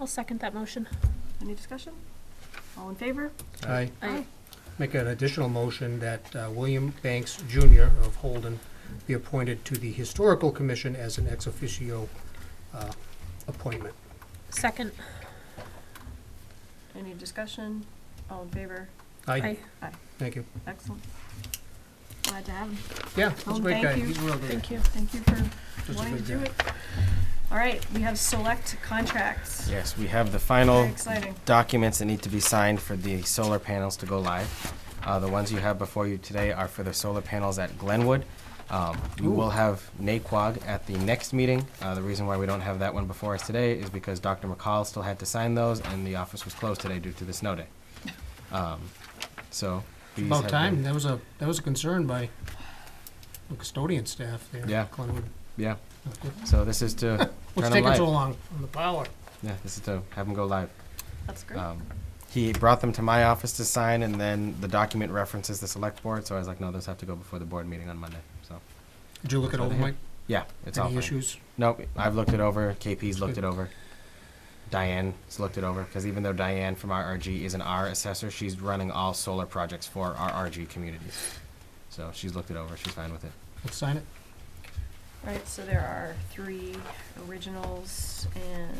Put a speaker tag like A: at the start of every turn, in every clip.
A: I'll second that motion.
B: Any discussion? All in favor?
C: I
A: I,
C: make an additional motion that uh, William Banks Jr. of Holden be appointed to the Historical Commission as an ex officio uh, appointment.
A: second,
B: Any discussion? All in favor?
C: Aye,
A: I, uh,
C: thank you.
B: Excellent. Glad to have him.
C: Yeah, he's a
B: Holden,
C: great
B: Oh, thank
C: guy.
B: you.
C: He's a real good.
A: thank you.
B: Thank you for
C: just a
B: wanting to
C: good
B: do
C: guy.
B: it. All right, we have select contracts.
D: Yes, we have the
B: Very
D: final
B: exciting.
D: documents that need to be signed for the solar panels to go live. Uh, the ones you have before you today are for the solar panels at Glenwood. Um, we
C: Ooh.
D: will have NAQUAG at the next meeting. Uh, the reason why we don't have that one before us today is because Dr. McCall still had to sign those, and the office was closed today due to the snow day. Um, so. these
C: About
D: have
C: time,
D: been-
C: that was a, that was a concern by the custodian staff there.
D: Yeah.
C: Glenwood.
D: Yeah,
C: Not good.
D: so this is to turn
C: What's
D: them
C: taking
D: live.
C: so long on the power?
D: Yeah, this is to have them go live.
B: That's great.
D: Um, he brought them to my office to sign, and then the document references the select board. So I was like, no, those have to go before the board meeting on Monday. So
C: Did you look it
D: So
C: over,
D: they-
C: Mike?
D: yeah, it's all
C: Any
D: fine.
C: issues?
D: Nope, I've looked it over. KP's looked
C: Good.
D: it over. Diane's looked it over because even though Diane from RRG is an R assessor, she's running all solar projects for our RG communities. So she's looked it over. She's fine with it.
C: Let's sign it.
B: All right, so there are three originals and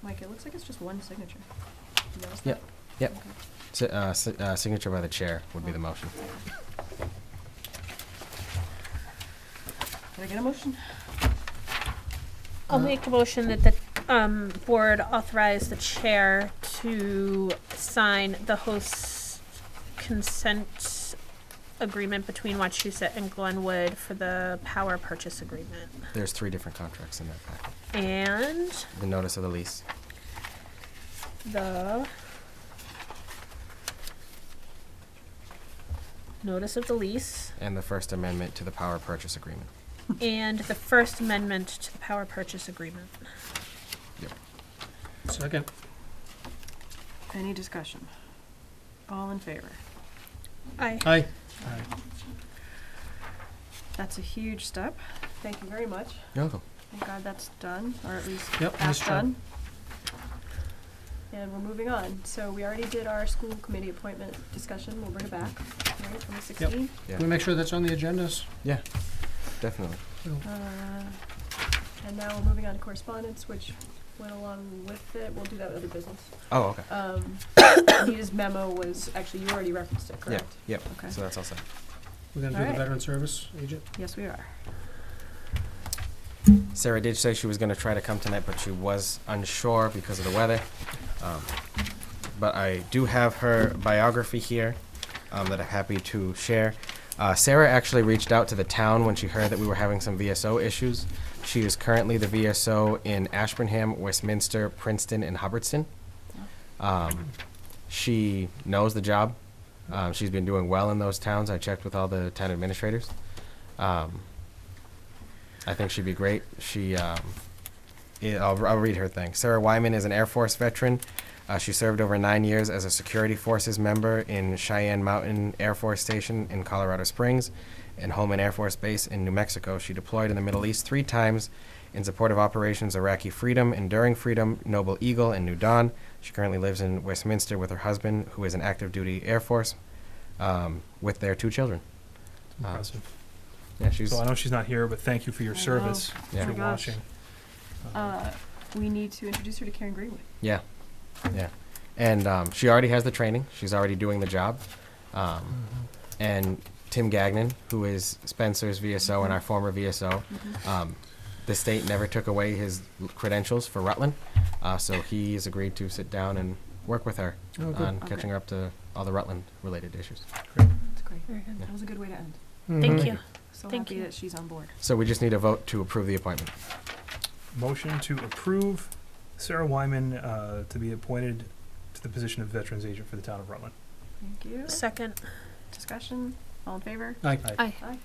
B: Mike, it looks like it's just one signature. You notice that?
D: Yep, yep.
B: Okay.
D: Si- uh, si- uh, signature by the chair would be the motion.
B: Can I get a motion?
A: I'll
C: Uh,
A: make a motion that the, um, board authorize the chair to sign the host consent agreement between Wachusett and Glenwood for the power purchase agreement.
D: There's three different contracts in that packet.
A: And
D: The notice of the lease.
A: the notice of the lease
D: and the First Amendment to the Power Purchase Agreement.
A: and the First Amendment to the Power Purchase Agreement.
C: Second.
B: Any discussion? All in favor?
A: Aye.
C: Aye.
B: That's a huge step. Thank you very much. Thank God that's done, or at least
C: Yep,
B: half
C: nice job.
B: done. And we're moving on. So we already did our school committee appointment discussion. We'll bring it back, right, from the sixteen.
C: Can we make sure that's on the agendas?
D: Yeah, definitely.
B: Uh, And now we're moving on to correspondence, which went along with it. We'll do that with other business.
D: Oh, okay.
B: Um, Anita's memo was, actually, you already referenced it,
D: Yeah,
B: correct?
D: yep.
B: Okay.
D: So that's all set.
C: We're gonna do
B: Alright.
C: the veteran service agent?
B: Yes, we are.
D: Sarah did say she was going to try to come tonight, but she was unsure because of the weather. Um, but I do have her biography here um, that I'm happy to share. Uh, Sarah actually reached out to the town when she heard that we were having some VSO issues. She is currently the VSO in Ashburnham, Westminster, Princeton, and Hubbardston. Um, she knows the job. Um, she's been doing well in those towns. I checked with all the town administrators. Um, I think she'd be great. She, um, yeah, I'll, I'll read her thing. Sarah Wyman is an Air Force veteran. Uh, she served over nine years as a security forces member in Cheyenne Mountain Air Force Station in Colorado Springs and Holman Air Force Base in New Mexico. She deployed in the Middle East three times in support of operations Iraqi Freedom, Enduring Freedom, Noble Eagle, and New Dawn. She currently lives in Westminster with her husband, who is an active duty Air Force, um, with their two children. Uh,
E: Impressive.
D: Yeah, she's.
E: So I know she's not here, but thank you for your
B: I know.
E: service,
D: Yeah.
E: for
B: Oh my gosh.
E: watching. Uh,
B: Uh, We need to introduce her to Karen Greenwood.
D: Yeah, yeah. And um, she already has the training. She's already doing the job. Um,
A: Mm-hmm.
D: and Tim Gagnon, who is Spencer's VSO and our former VSO, um, the state never took away his l- credentials for Rutland, uh, so he has agreed to sit down and work with her
C: Oh, good.
A: Uh,
D: on
B: Okay.
D: catching her up to all the Rutland-related issues.
B: That's great.
A: Very good.
B: That was a good way to end.
A: Thank
C: Mhm.
A: you.
B: So
A: Thank
B: happy
A: you.
B: that she's on board.
D: So we just need a vote to approve the appointment.
E: Motion to approve Sarah Wyman uh, to be appointed to the position of Veterans Agent for the town of Rutland.
B: Thank you.
A: Second.
B: Discussion, all in favor?
C: Aye.
A: Aye.
B: Aye.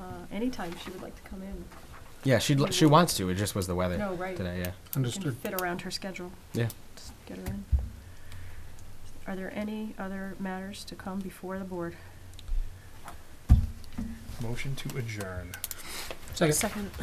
B: Uh, anytime she would like to come in.
D: Yeah, she would she wants to. It just was the weather
B: No, right.
D: today. Yeah.
B: We Can
C: Understood.
B: fit around her schedule.
D: Yeah.
B: Just get her in. Are there any other matters to come before the board?
E: Motion to adjourn.
C: Second.
A: Second.